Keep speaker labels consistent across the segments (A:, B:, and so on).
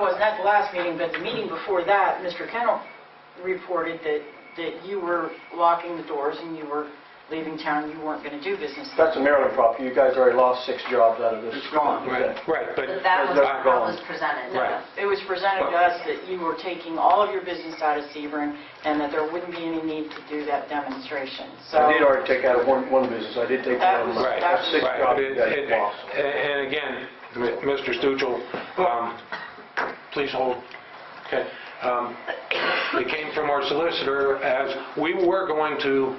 A: not the last meeting, but the meeting before that, Mr. Kennel reported that, that you were locking the doors and you were leaving town, you weren't going to do business.
B: That's a Maryland property. You guys already lost six jobs out of this.
C: It's gone.
B: Okay.
D: Right, but,
E: But that was,
B: Those
E: that
B: are
E: was
B: gone.
E: presented.
D: Right.
A: It was presented to us that you were taking all of your business out of Sebring and that there wouldn't be any need to do that demonstration, so.
B: I did already take out of one, one business. I did take
A: That
B: out of
A: was-
B: mine.
D: right,
A: that
B: That's
A: was-
B: six
D: right.
B: jobs you
D: And-
B: guys
D: and-
B: lost.
D: And again, M- Mr. Stuchel, um, please hold. Okay. Um, It came from our solicitor as, we were going to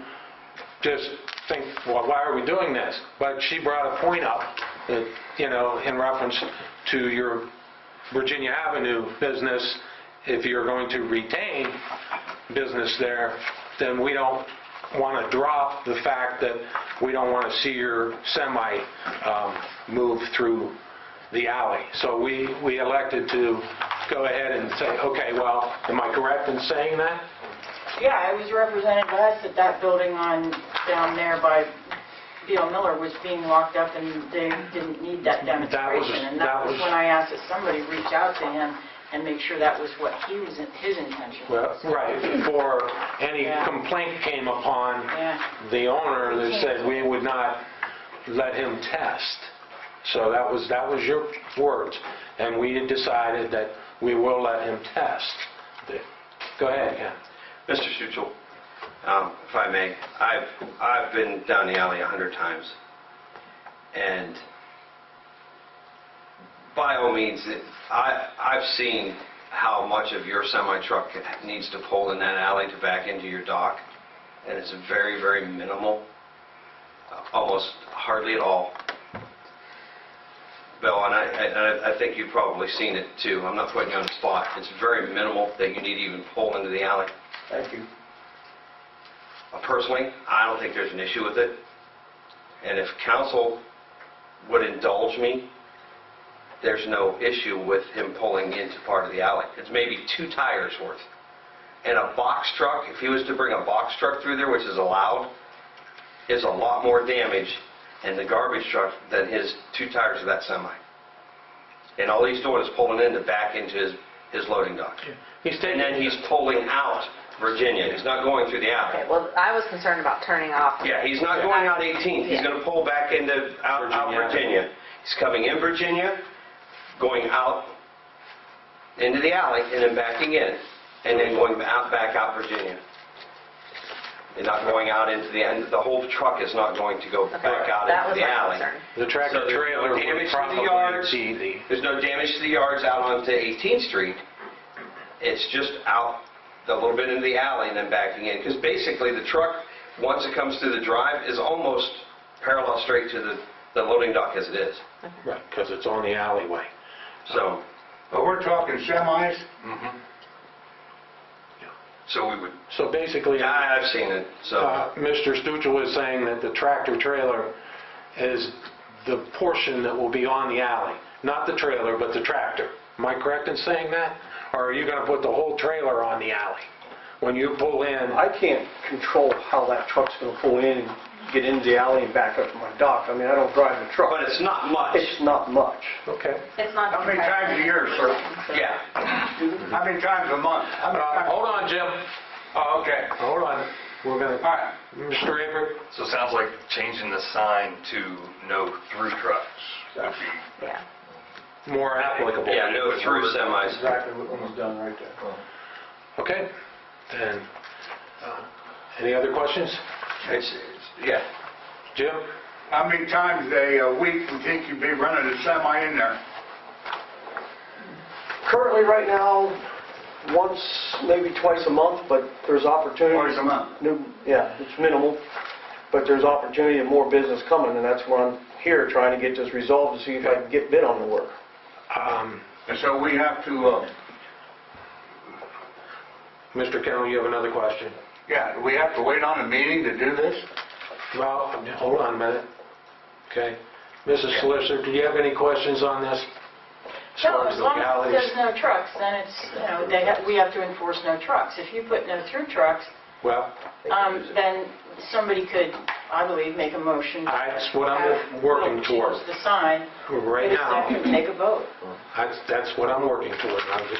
D: just think, well, why are we doing this? But she brought a point up, that, you know, in reference to your Virginia Avenue business, if you're going to retain business there, then we don't want to drop the fact that we don't want to see your semi um, move through the alley. So we, we elected to go ahead and say, okay, well, am I correct in saying that?
A: Yeah, it was represented to us that that building on, down there by Bill Miller was being locked up and they didn't need that
D: That was-
A: demonstration. And
D: that
A: that was
D: was-
A: when I asked that somebody reach out to him and make sure that was what he was, his intention
D: Well,
A: was.
D: right, before any
A: Yeah.
D: complaint came upon
A: Yeah.
D: the owner that said we would not let him test. So that was, that was your words, and we had decided that we will let him test. Go ahead, Ken.
C: Mr. Schuchel, um, if I may, I've, I've been down the alley a hundred times, and by all means, it- I, I've seen how much of your semi-truck needs to pull in that alley to back into your dock, and it's very, very minimal, uh, almost hardly at all. Bill, and I, and I- I think you've probably seen it too, I'm not putting you on the spot, it's very minimal that you need to even pull into the alley.
B: Thank you.
C: Uh, Personally, I don't think there's an issue with it. And if council would indulge me, there's no issue with him pulling into part of the alley. It's maybe two tires worth. And a box truck, if he was to bring a box truck through there, which is allowed, is a lot more damage in the garbage truck than his two tires of that semi. And all he's doing is pulling in to back into his, his loading dock.
D: He's
C: And
D: taking,
C: then he's pulling out Virginia. He's not going through the alley.
F: Okay, well, I was concerned about turning off.
C: Yeah, he's not going out 18th. He's
F: Yeah.
C: going to pull back into, out, out
D: Virginia.
C: Virginia. He's coming in Virginia, going out into the alley, and then backing in, and then going out, back out Virginia. He's not going out into the, and the whole truck is not going to go back out
F: That
C: into
F: was
C: the
F: my
C: alley.
F: concern.
D: the tractor
C: So there's no
D: trailer would
C: damage to the
D: probably
C: yards.
D: see the...
C: There's no damage to the yards out onto 18th Street. It's just out a little bit into the alley and then backing in. Because basically, the truck, once it comes through the drive, is almost parallel straight to the, the loading dock as it is.
D: Right, because it's on the alleyway.
C: So, Mm-hmm.
G: But we're talking semis?
C: so we would,
D: So basically...
C: yeah, I- I've seen it, so.
G: Uh-huh.
D: Uh, Mr. Stuchel is saying that the tractor trailer is the portion that will be on the alley, not the trailer, but the tractor. Am I correct in saying that? Or are you going to put the whole trailer on the alley? When you pull in,
B: I can't control how that truck's going to pull in and get into the alley and back up to my dock. I mean, I don't drive the truck.
C: But it's not much.
B: It's not much.
D: okay.
F: It's not.
G: How many times a year, sir?
C: Yeah.
G: How many times a month? How many
D: Uh,
G: times-
D: Hold on, Jim.
G: Oh, okay.
D: Hold on. We're going
G: All
D: to,
G: right.
D: Mr. Avery?
H: So it sounds like changing the sign to no through trucks would be
F: Yeah.
D: More applicable.
C: Yeah, no through semis.
G: Exactly what was done right there.
D: Okay. Then, uh, any other questions?
C: It's, it's- yeah.
D: Jim?
G: How many times a uh, week do you think you'd be running a semi in there?
B: Currently, right now, once, maybe twice a month, but there's opportunity.
G: Twice a month.
B: No, Yeah, it's minimal, but there's opportunity and more business coming, and that's why I'm here, trying to get this resolved to see if I can get bid on the work.
D: Um,
G: And so we have to, uh,
D: Mr. Kennel, you have another question?
G: yeah, do we have to wait on a meeting to do this?
D: Well, hold on a minute. Okay. Mrs. Solicitor, do you have any questions on this? As
A: No,
D: far
A: as long as it
D: legalities?
A: says no trucks, then it's, you know, they have, we have to enforce no trucks. If you put no through trucks,
D: Well,
A: um, then somebody could I believe, make a motion. to
D: That's what I'm working
A: have-
D: toward.
A: Change the sign.
D: Right
A: Get a
D: now-
A: second, Take a vote.
D: That's, that's what I'm working toward. I'm just